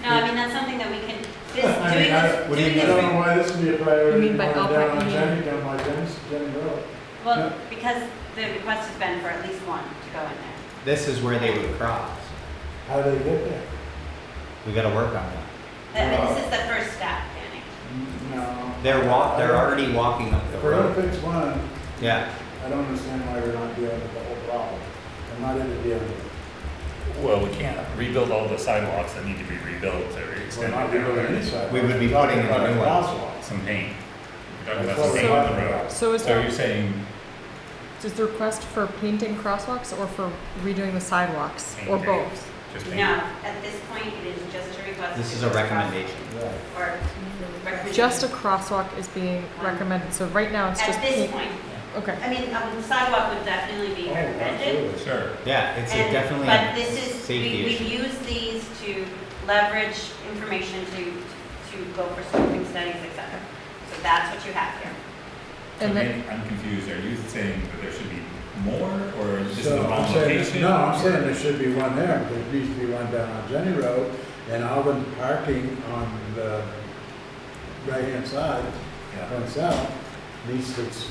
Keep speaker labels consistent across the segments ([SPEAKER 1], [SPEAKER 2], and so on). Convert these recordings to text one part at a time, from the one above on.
[SPEAKER 1] This,
[SPEAKER 2] I mean,
[SPEAKER 1] doing
[SPEAKER 2] I,
[SPEAKER 1] this,
[SPEAKER 2] what do
[SPEAKER 1] doing
[SPEAKER 2] you- I
[SPEAKER 1] this,
[SPEAKER 2] don't know why this would be a
[SPEAKER 3] You
[SPEAKER 2] priority
[SPEAKER 3] mean
[SPEAKER 2] going
[SPEAKER 3] by
[SPEAKER 2] down
[SPEAKER 3] outright
[SPEAKER 2] on
[SPEAKER 3] meeting?
[SPEAKER 2] Jenny, down by Jenny's, Jenny Road.
[SPEAKER 1] well, because the request has been for at least one to go in there.
[SPEAKER 4] This is where they would cross.
[SPEAKER 2] How do they get there?
[SPEAKER 4] We gotta work on that.
[SPEAKER 1] That- This is the first step, Danny.
[SPEAKER 2] No.
[SPEAKER 4] They're walk, they're already walking up the
[SPEAKER 2] If we're gonna
[SPEAKER 4] road.
[SPEAKER 2] fix one,
[SPEAKER 4] Yeah,
[SPEAKER 2] I don't understand why we're not dealing with the whole problem. I'm not into dealing with it.
[SPEAKER 5] Well, we can't rebuild all the sidewalks that need to be rebuilt to
[SPEAKER 2] We're
[SPEAKER 5] extend
[SPEAKER 2] not
[SPEAKER 5] it down
[SPEAKER 2] dealing with any
[SPEAKER 5] there.
[SPEAKER 2] sidewalk.
[SPEAKER 4] We would be
[SPEAKER 2] We're talking
[SPEAKER 4] putting in a
[SPEAKER 2] about
[SPEAKER 4] new one.
[SPEAKER 2] crosswalk.
[SPEAKER 5] Some paint. We're talking
[SPEAKER 2] That's what
[SPEAKER 5] about some
[SPEAKER 2] we're
[SPEAKER 5] paint on the
[SPEAKER 2] talking about.
[SPEAKER 5] road.
[SPEAKER 3] So is
[SPEAKER 5] So you're
[SPEAKER 3] the,
[SPEAKER 5] saying
[SPEAKER 3] is the request for painting crosswalks or for redoing the sidewalks or
[SPEAKER 5] Painting.
[SPEAKER 3] both?
[SPEAKER 5] just
[SPEAKER 1] No,
[SPEAKER 5] paint?
[SPEAKER 1] at this point, it is just a request.
[SPEAKER 4] this
[SPEAKER 1] to
[SPEAKER 4] is a
[SPEAKER 1] cross-
[SPEAKER 4] recommendation.
[SPEAKER 2] Right.
[SPEAKER 1] Or recommendation.
[SPEAKER 3] Just a crosswalk is being recommended, so right now it's just
[SPEAKER 1] At this
[SPEAKER 3] paint.
[SPEAKER 1] point,
[SPEAKER 3] Okay,
[SPEAKER 1] I mean, a sidewalk would definitely be
[SPEAKER 2] Oh,
[SPEAKER 1] recommended.
[SPEAKER 2] absolutely.
[SPEAKER 5] Sure.
[SPEAKER 4] Yeah, it's a
[SPEAKER 1] And-
[SPEAKER 4] definitely
[SPEAKER 1] But
[SPEAKER 4] a
[SPEAKER 1] this is, we,
[SPEAKER 4] safety
[SPEAKER 1] we
[SPEAKER 4] issue.
[SPEAKER 1] use these to leverage information to, to go for scoping studies, et cetera. So that's what you have here.
[SPEAKER 5] So
[SPEAKER 3] and then,
[SPEAKER 5] again, I'm confused. Are you saying that there should be more or is this the
[SPEAKER 2] So I'm
[SPEAKER 5] wrong
[SPEAKER 2] saying,
[SPEAKER 5] location?
[SPEAKER 2] no, I'm saying there should be one there, but there needs to be one down on Jenny Road and Alvin parking on the right-hand side,
[SPEAKER 5] Yeah.
[SPEAKER 2] going south, needs to s-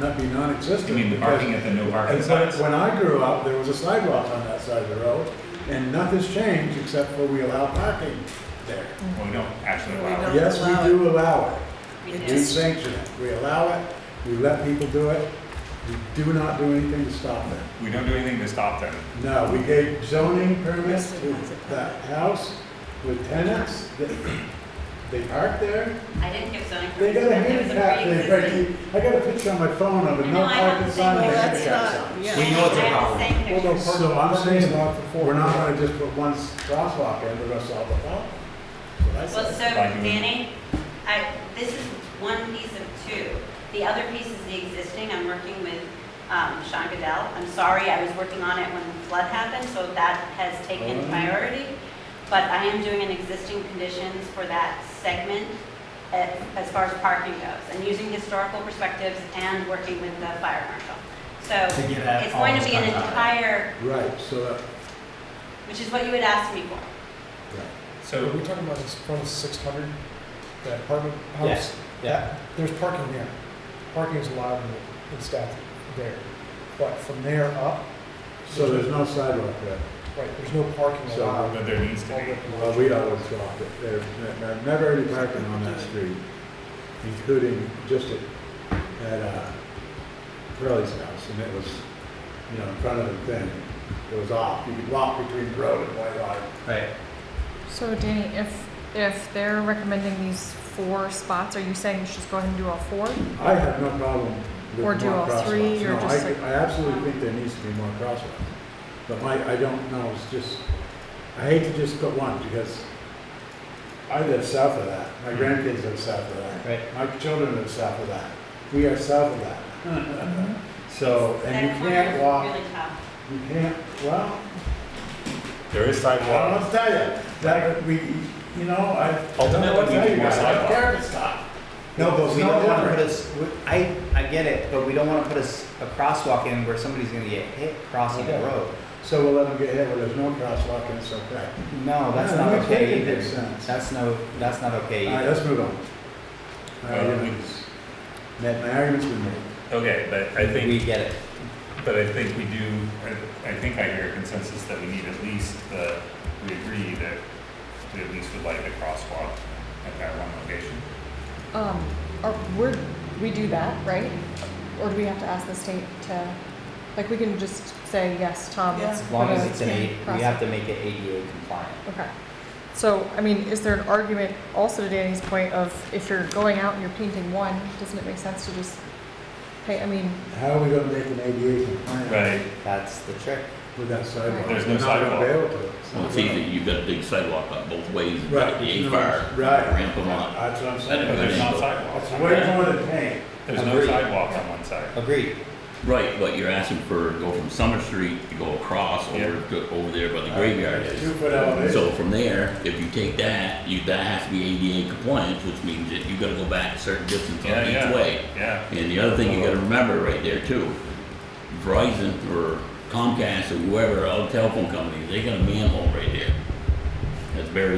[SPEAKER 2] not be non-existent.
[SPEAKER 5] You mean the
[SPEAKER 2] because-
[SPEAKER 5] parking at the no parking
[SPEAKER 2] And when-
[SPEAKER 5] signs?
[SPEAKER 2] when I grew up, there was a sidewalk on that side of the road and nothing's changed except for we allow parking there.
[SPEAKER 5] Well, we don't actually
[SPEAKER 3] We
[SPEAKER 5] allow.
[SPEAKER 3] don't.
[SPEAKER 5] it.
[SPEAKER 2] Yes, we do allow it.
[SPEAKER 1] We
[SPEAKER 3] It
[SPEAKER 2] We
[SPEAKER 1] do.
[SPEAKER 3] just-
[SPEAKER 2] sanction it, we allow it, we let people do it, we do not do anything to stop it.
[SPEAKER 5] We don't do anything to stop them.
[SPEAKER 2] No, we gave zoning permits to that house with tenants, that- they parked there,
[SPEAKER 1] I didn't give zoning
[SPEAKER 2] they
[SPEAKER 1] permission.
[SPEAKER 2] got a
[SPEAKER 1] It was a
[SPEAKER 2] handicap, they,
[SPEAKER 1] pre-existing-
[SPEAKER 2] I got a picture on my phone of a no parking sign and a
[SPEAKER 1] Well, that's
[SPEAKER 2] handicap sign.
[SPEAKER 3] yeah.
[SPEAKER 4] We
[SPEAKER 1] I
[SPEAKER 4] know it's a
[SPEAKER 1] have the
[SPEAKER 4] problem.
[SPEAKER 1] same
[SPEAKER 2] Well, no,
[SPEAKER 1] picture.
[SPEAKER 2] So I'm saying, we're not gonna just put one crosswalk in, we're gonna solve the problem. That's what I
[SPEAKER 1] Well,
[SPEAKER 2] said.
[SPEAKER 1] so
[SPEAKER 5] Like you-
[SPEAKER 1] Danny, I, this is one piece of two. The other piece is the existing, I'm working with um, Sean Goodell. I'm sorry, I was working on it when the flood happened, so that has taken
[SPEAKER 2] Oh.
[SPEAKER 1] priority. But I am doing an existing conditions for that segment a- as far as parking goes, and using historical perspectives and working with the fire marshal.
[SPEAKER 4] To
[SPEAKER 1] So
[SPEAKER 4] get at
[SPEAKER 1] it's
[SPEAKER 4] all
[SPEAKER 1] going to
[SPEAKER 4] this
[SPEAKER 1] be an
[SPEAKER 4] kind of-
[SPEAKER 1] entire,
[SPEAKER 2] Right, so, that-
[SPEAKER 1] which is what you had asked me for.
[SPEAKER 2] right.
[SPEAKER 6] Are
[SPEAKER 5] So,
[SPEAKER 6] we talking about this front of six hundred, that apartment
[SPEAKER 4] Yeah,
[SPEAKER 6] house?
[SPEAKER 4] yeah.
[SPEAKER 6] There's parking there. Parking is allowed in the- in statute there. But from there up,
[SPEAKER 2] so there's no sidewalk there.
[SPEAKER 6] right, there's no parking
[SPEAKER 2] So-
[SPEAKER 6] allowed.
[SPEAKER 5] but there needs to be.
[SPEAKER 2] Well, we always walked it. There's ne- ne- never any parking on that street, including just at, at uh, Curly's house. And it was, you know, in front of the thing. It was off. You could walk between the road and White Line.
[SPEAKER 4] Right.
[SPEAKER 3] so Danny, if, if they're recommending these four spots, are you saying you should just go ahead and do all four?
[SPEAKER 2] I have no problem with more
[SPEAKER 3] Or do all
[SPEAKER 2] crosswalks.
[SPEAKER 3] three, or
[SPEAKER 2] No, I,
[SPEAKER 3] just like-
[SPEAKER 2] I absolutely think there needs to be more crosswalks. But my, I don't know, it's just, I hate to just put one because I live south of that. My grandkids live south of that.
[SPEAKER 4] Right.
[SPEAKER 2] My children live south of that. We are south of that.
[SPEAKER 3] Mm-hmm.
[SPEAKER 2] So, and
[SPEAKER 1] That
[SPEAKER 2] you
[SPEAKER 1] corner
[SPEAKER 2] can't
[SPEAKER 1] is
[SPEAKER 2] walk,
[SPEAKER 1] Really tough.
[SPEAKER 2] you can't, well,
[SPEAKER 5] There is
[SPEAKER 2] I don't know what to tell you. That, we, you know, I.
[SPEAKER 5] Ultimately, we need more
[SPEAKER 2] sidewalks.
[SPEAKER 5] sidewalks.
[SPEAKER 4] No, but
[SPEAKER 2] It's
[SPEAKER 4] we
[SPEAKER 2] no
[SPEAKER 4] don't wanna put
[SPEAKER 2] different.
[SPEAKER 4] us, I, I get it, but we don't wanna put us a crosswalk in where somebody's gonna get hit crossing the
[SPEAKER 2] Okay.
[SPEAKER 4] road.
[SPEAKER 2] So we'll let them get hit where there's no crosswalk and it's okay.
[SPEAKER 4] No, that's
[SPEAKER 2] No,
[SPEAKER 4] not
[SPEAKER 2] that
[SPEAKER 4] okay
[SPEAKER 2] doesn't make
[SPEAKER 4] either.
[SPEAKER 2] sense.
[SPEAKER 4] That's no, that's not okay
[SPEAKER 2] All right,
[SPEAKER 4] either.
[SPEAKER 2] let's move on. My
[SPEAKER 5] Um,
[SPEAKER 2] argument is, Matt, my argument's been made.
[SPEAKER 5] Okay, but I think.
[SPEAKER 4] We get it.
[SPEAKER 5] But I think we do, I- I think I hear a consensus that we need at least the, we agree that we at least would like a crosswalk at that one location.
[SPEAKER 3] Um, are, we're, we do that, right? Or do we have to ask the state to, like, we can just say, yes, Tom, let's.
[SPEAKER 4] As long
[SPEAKER 3] put
[SPEAKER 4] as
[SPEAKER 3] a
[SPEAKER 4] it's an eight, we
[SPEAKER 3] crosswalk."
[SPEAKER 4] have to make it ADA compliant.
[SPEAKER 3] Okay. So, I mean, is there an argument also to Danny's point of if you're going out and you're painting one, doesn't it make sense to just pay, I mean,
[SPEAKER 2] How are we gonna make an ADA compliant
[SPEAKER 5] Right,
[SPEAKER 4] That's the trick.
[SPEAKER 2] with that sidewalk?
[SPEAKER 5] There's
[SPEAKER 2] We're not
[SPEAKER 5] no
[SPEAKER 2] gonna be
[SPEAKER 5] sidewalk.
[SPEAKER 2] able to. It's
[SPEAKER 7] Well,
[SPEAKER 2] not
[SPEAKER 7] it's easy,
[SPEAKER 2] gonna-
[SPEAKER 7] you've got a big sidewalk up both ways, you've
[SPEAKER 2] Right.
[SPEAKER 7] got the
[SPEAKER 2] there's no-
[SPEAKER 7] A-fire,
[SPEAKER 2] Right,
[SPEAKER 7] ramp them on.
[SPEAKER 2] that's what I'm
[SPEAKER 5] but
[SPEAKER 2] saying.
[SPEAKER 5] there's not
[SPEAKER 2] It's
[SPEAKER 5] sidewalks. on
[SPEAKER 2] way
[SPEAKER 5] that.
[SPEAKER 2] more than paint.
[SPEAKER 5] There's no
[SPEAKER 4] Agreed.
[SPEAKER 5] sidewalk on one side.
[SPEAKER 4] Agreed.
[SPEAKER 7] Right, but you're asking for, go from Summer Street to go across over,
[SPEAKER 5] Yeah.
[SPEAKER 7] go over there by the graveyard
[SPEAKER 2] It's
[SPEAKER 7] is.
[SPEAKER 2] Two foot elevation.
[SPEAKER 7] So from there, if you take that, you, that has to be ADA compliant, which means that you gotta go back a certain distance on
[SPEAKER 5] Yeah, yeah.
[SPEAKER 7] each way.
[SPEAKER 5] Yeah,
[SPEAKER 7] And the other thing you gotta remember right there too, Verizon or Comcast or whoever, all the telephone companies, they got a manhole right there. That's buried